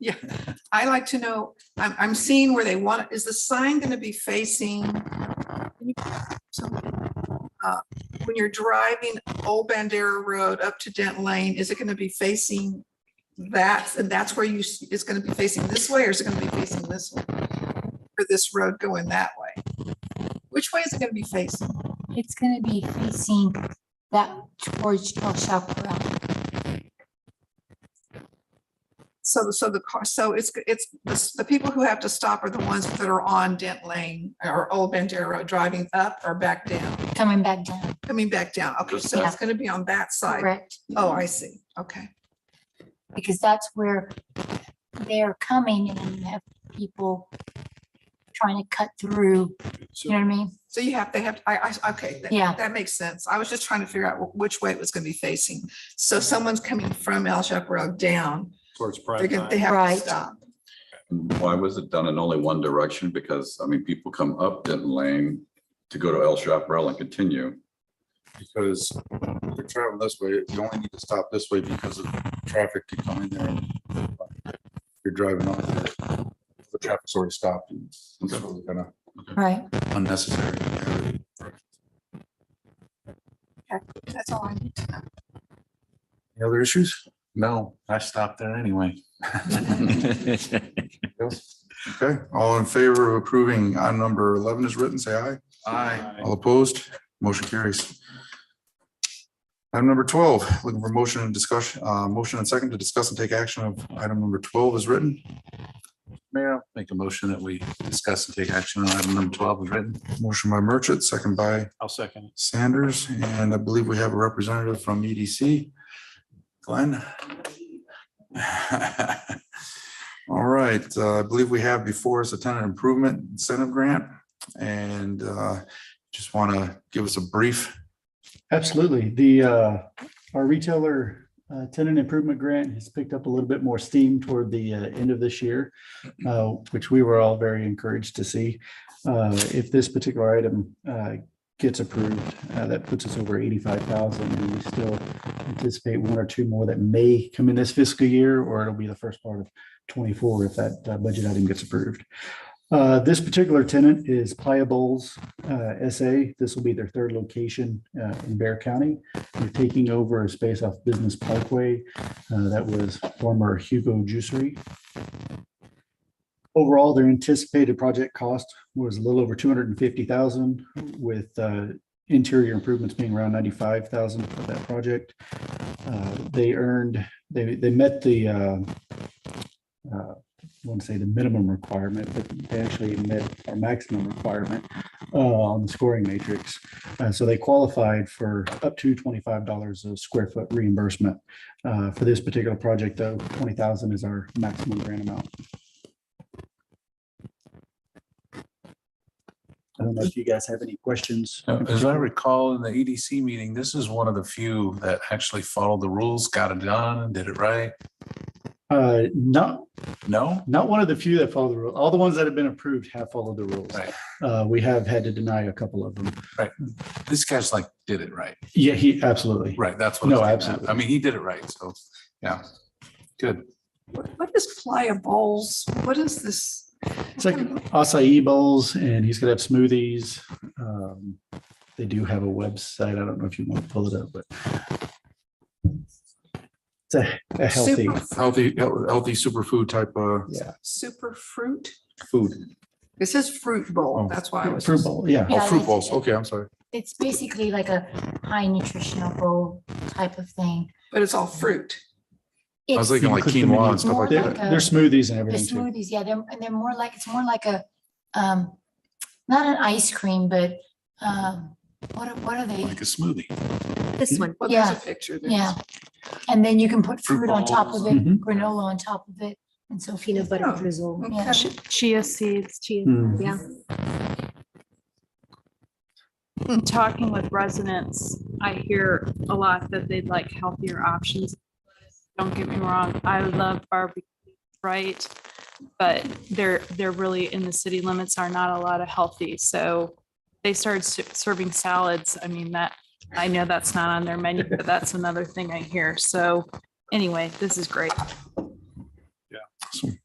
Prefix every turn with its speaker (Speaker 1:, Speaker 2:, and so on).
Speaker 1: Yeah, I like to know, I'm, I'm seeing where they want, is the sign gonna be facing? Uh, When you're driving Old Bandera Road up to Dent Lane, is it gonna be facing that? And that's where you, s- it's gonna be facing this way or is it gonna be facing this way? For this road going that way? Which way is it gonna be facing?
Speaker 2: It's gonna be facing that towards El Chaparral.
Speaker 1: So, so the car, so it's, it's, the s- the people who have to stop are the ones that are on Dent Lane or Old Bandera Road, driving up or back down?
Speaker 2: coming back down,
Speaker 1: Coming back down. Okay, so it's
Speaker 2: Yeah.
Speaker 1: gonna be on that side.
Speaker 2: correct?
Speaker 1: Oh, I see. Okay.
Speaker 2: Because that's where they're coming and then you have people trying to cut through, you know what I mean?
Speaker 1: So you have, they have, I, I, okay. that-
Speaker 2: Yeah.
Speaker 1: That makes sense. I was just trying to figure out wh- which way it was gonna be facing. So someone's coming from El Chaparral down,
Speaker 3: Towards
Speaker 1: they're
Speaker 3: prime
Speaker 1: gonna, they
Speaker 3: time.
Speaker 1: have
Speaker 2: Right.
Speaker 1: to stop.
Speaker 4: And Why was it done in only one direction? Because, I mean, people come up Denton Lane to go to El Chaparral and continue.
Speaker 3: Because if you're traveling this way, you only need to stop this way because of traffic to come in there. You're driving on the, the traffic's already stopped. and It's really kind of
Speaker 2: Right.
Speaker 3: unnecessary.
Speaker 1: That's all I need to know.
Speaker 3: Any other issues? No, I stopped there anyway. Okay, all in favor of approving on number eleven is written, say aye. Aye. All opposed, motion carries. Item number twelve, looking for motion and discussion, uh, motion and second to discuss and take action of item number twelve is written. Mayor, make a motion that we discuss and take action on item number twelve is written. Motion by Merchant, second by
Speaker 5: I'll second.
Speaker 3: Sanders, and I believe we have a representative from E EDC. Glenn? All right, uh, I believe we have before us a tenant improvement incentive grant, and uh, just want to give us a brief.
Speaker 5: Absolutely. The, uh, our retailer uh, tenant improvement grant has picked up a little bit more steam toward the uh, end of this year, uh, which we were all very encouraged to see. Uh, If this particular item uh, gets approved, uh, that puts us over eighty-five thousand, and we still anticipate one or two more that may come in this fiscal year, or it'll be the first part of twenty-four if that uh, budget item gets approved. Uh, This particular tenant is Playa Bowls uh, SA. This will be their third location uh, in Bear County. They're taking over a space off Business Parkway uh, that was former Hugo Juicery. Overall, their anticipated project cost was a little over two hundred and fifty thousand, with uh, interior improvements being around ninety-five thousand for that project. Uh, They earned, they, they met the uh, uh, I want to say the minimum requirement, but they actually met our maximum requirement uh, on the scoring matrix. Uh, so they qualified for up to twenty-five dollars a square foot reimbursement. Uh, for this particular project, though, twenty thousand is our maximum grant amount. I don't know if you guys have any questions.
Speaker 6: As I recall, in the EDC meeting, this is one of the few that actually followed the rules, got it done, did it right.
Speaker 5: Uh, not,
Speaker 6: No?
Speaker 5: not one of the few that follow the rule. All the ones that have been approved have followed the rules.
Speaker 6: Right.
Speaker 5: Uh, we have had to deny a couple of them.
Speaker 6: This guy's like, did it right.
Speaker 5: Yeah, he, absolutely.
Speaker 6: Right, that's what.
Speaker 5: No,
Speaker 6: I'm getting at.
Speaker 5: absolutely.
Speaker 6: I mean, he did it right, so, yeah. Good.
Speaker 1: What- What is Playa Bowls? What is this?
Speaker 5: It's like acai bowls and he's gonna have smoothies. Um, They do have a website. I don't know if you want to pull it up, but it's a- a healthy,
Speaker 1: Super-
Speaker 3: Healthy, healthy superfood type of.
Speaker 5: yeah,
Speaker 1: Super fruit?
Speaker 3: Food.
Speaker 1: It says fruit
Speaker 3: Oh,
Speaker 1: bowl. That's why I was.
Speaker 5: fruit bowl, yeah.
Speaker 3: Oh,
Speaker 2: Yeah,
Speaker 3: fruit
Speaker 2: that's-
Speaker 3: balls, okay, I'm sorry.
Speaker 2: It's basically like a high nutritional bowl type of thing.
Speaker 1: But it's all fruit.
Speaker 3: I was
Speaker 2: It's
Speaker 3: thinking like
Speaker 5: Click the menu.
Speaker 3: quinoa and stuff
Speaker 2: More
Speaker 3: like
Speaker 5: Their
Speaker 3: that.
Speaker 2: like a-
Speaker 5: their smoothies and
Speaker 2: the
Speaker 5: everything too.
Speaker 2: smoothies, yeah, they're, and they're more like, it's more like a, um, not an ice cream, but, um, what, are- what are they?
Speaker 6: Like a smoothie.
Speaker 7: This one.
Speaker 1: Well, there's
Speaker 2: Yeah.
Speaker 1: a picture. there.
Speaker 2: Yeah. And then you can put
Speaker 6: Fruit
Speaker 2: fruit on top of
Speaker 6: balls.
Speaker 2: it,
Speaker 5: Mhm.
Speaker 2: granola on top of it, and so
Speaker 7: Peanut
Speaker 2: forth.
Speaker 7: butter
Speaker 1: Oh,
Speaker 7: drizzle.
Speaker 1: okay.
Speaker 2: Yeah.
Speaker 7: Chi- Chia seeds, chia,
Speaker 5: Mm.
Speaker 7: yeah.
Speaker 8: talking with residents, I hear a lot that they'd like healthier options. Don't get me wrong, I love barbecue, right? But they're, they're really in the city limits are not a lot of healthy, so they started ser- serving salads. I mean, that, I know that's not on their menu, but that's another thing I hear. So anyway, this is great.
Speaker 3: Awesome.